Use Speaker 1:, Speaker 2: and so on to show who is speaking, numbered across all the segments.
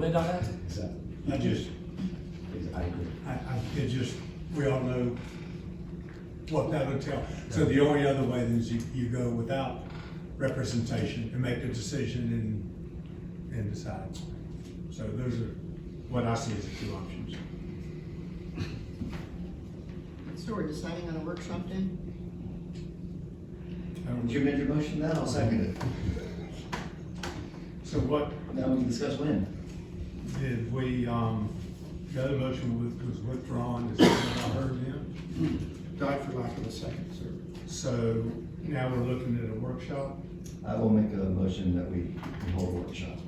Speaker 1: Linda on that?
Speaker 2: I just,
Speaker 1: I agree.
Speaker 2: I, I, it just, we all know what that would tell. So the only other way is you, you go without representation and make a decision and, and decide. So those are what I see as the two options.
Speaker 3: So we're deciding on a workshop then?
Speaker 4: Did you make your motion then? I'll second it.
Speaker 2: So what
Speaker 4: Now we can discuss when.
Speaker 2: did we, um, the other motion was- was withdrawn, is that what I heard then?
Speaker 5: Hmm. died for lack of a second, sir.
Speaker 2: So now we're looking at a workshop,
Speaker 4: I will make a motion that we we hold a workshop.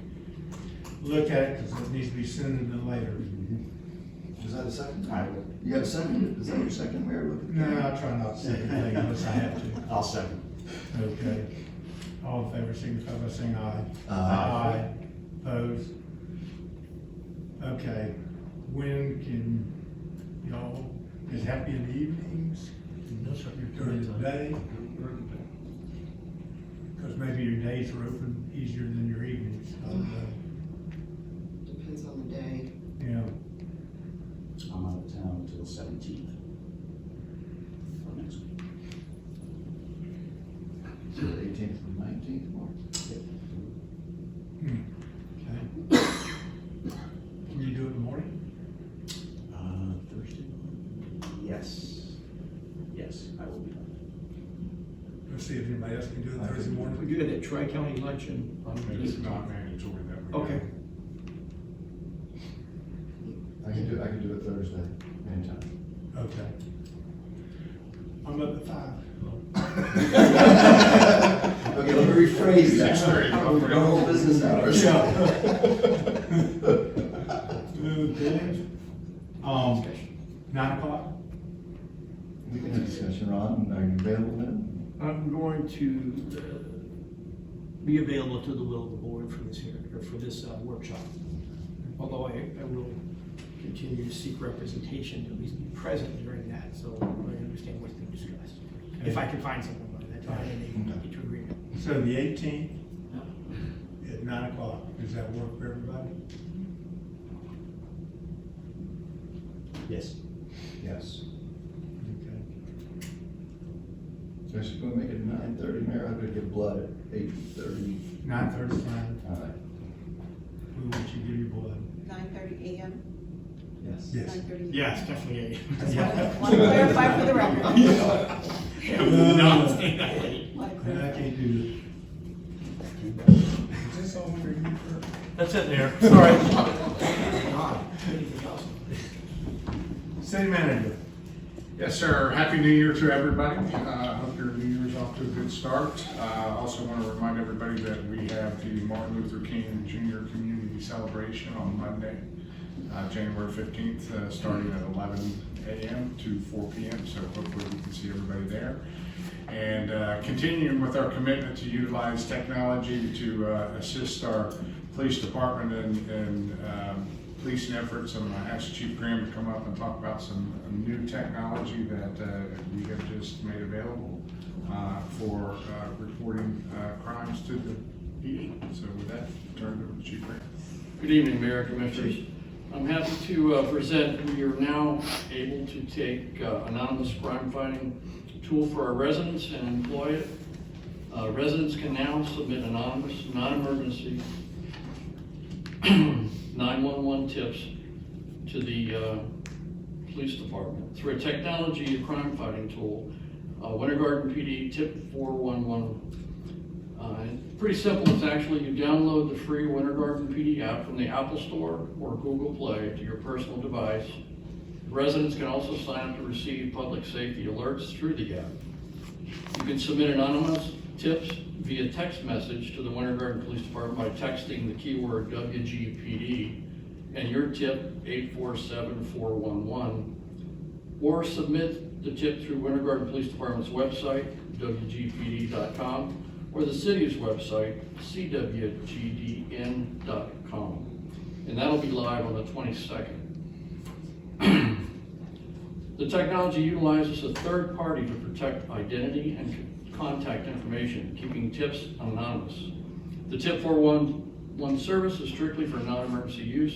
Speaker 2: look at it, cause it needs to be sooner than later. Mm-hmm.
Speaker 4: Is that a second? I will. You got a second? Is that your second, Mayor? Look at
Speaker 2: No,
Speaker 4: that.
Speaker 2: I try not to say anything unless I have to.
Speaker 5: I'll second.
Speaker 2: Okay. All in favor, signify by saying aye.
Speaker 4: Aye.
Speaker 2: Opposed? Okay, when can y'all, is happy in the evenings? No, sir. During the day? Because maybe your days are open easier than your evenings, Uh, I don't know.
Speaker 3: Depends on the day.
Speaker 2: yeah.
Speaker 1: I'm out of town until seventeenth. For next week.
Speaker 4: So the eighteenth and nineteenth of March.
Speaker 2: Hmm. Okay. Can you do it in the morning?
Speaker 1: Uh, Thursday? Yes. Yes, I will be.
Speaker 2: Let's see if anybody else can do it Thursday
Speaker 5: We
Speaker 2: morning.
Speaker 5: do it at Tri-County Luncheon on
Speaker 6: It's not mandatory that we.
Speaker 5: Okay.
Speaker 4: I can do, I can do it Thursday, anytime.
Speaker 2: Okay. I'm up at five.
Speaker 4: Okay, let me rephrase that.
Speaker 6: Six thirty.
Speaker 4: Our whole business hours.
Speaker 2: Okay. Um, nine o'clock?
Speaker 4: We can have discussion, Ron. Are you available then?
Speaker 7: I'm going to uh, be available to the will of the board for this hearing, or for this uh, workshop. Although I, I will continue to seek representation, to at least be present during that, so I understand what's being discussed. If I can find someone by that time, and they can get to agreement.
Speaker 2: So the eighteenth at nine o'clock, does that work for everybody?
Speaker 1: Yes.
Speaker 4: Yes.
Speaker 2: Okay.
Speaker 4: So she's gonna make it nine thirty, Mayor. I'm gonna get blood at eight thirty.
Speaker 2: Nine thirty, fine.
Speaker 4: All right.
Speaker 2: We want you to give your blood.
Speaker 8: Nine thirty AM?
Speaker 4: Yes.
Speaker 2: Yes.
Speaker 8: 9:30.
Speaker 7: Yes, definitely.
Speaker 8: Just wanna- wanna clarify for the record.
Speaker 7: Yeah, we do not stay that late.
Speaker 8: Wanna
Speaker 2: And I
Speaker 8: clarify.
Speaker 2: can't do it. Is this all under you for?
Speaker 1: That's it there, sorry.
Speaker 7: Anything else?
Speaker 2: City manager.
Speaker 6: Yes, sir. Happy New Year to everybody. Uh, I hope your New Year's off to a good start. Uh, I also want to remind everybody that we have the Martin Luther King Jr. Community Celebration on Monday, uh, January fifteenth, uh, starting at eleven AM to four PM. So hopefully we can see everybody there. And, uh, continuing with our commitment to utilize technology to, uh, assist our police department and, and, um, policing efforts, I'm gonna ask Chief Graham to come up and talk about some uh, new technology that uh, we have just made available uh, for uh, reporting uh, crimes to the PD. So with that, turn it over to Chief Graham.
Speaker 9: Good evening, Mayor Commissioners. I'm happy to uh, present, we are now able to take uh, anonymous crime fighting tool for our residents and employ it. Uh, Residents can now submit anonymous, non-emergency 911 tips to the uh, police department through a technology crime fighting tool, uh, Winter Garden PD Tip 411 uh, it's Pretty simple, it's actually, you download the free Winter Garden PD app from the Apple Store or Google Play to your personal device. Residents can also sign up to receive public safety alerts through the app. You can submit anonymous tips via text message to the Winter Garden Police Department by texting the keyword WGPD and your tip 847411, or submit the tip through Winter Garden Police Department's website, WGPD.com, or the city's website, CWGDN.com. And that'll be live on the 22nd. The technology utilizes a third party to protect identity and contact information, keeping tips anonymous. The tip 411 One service is strictly for non-emergency use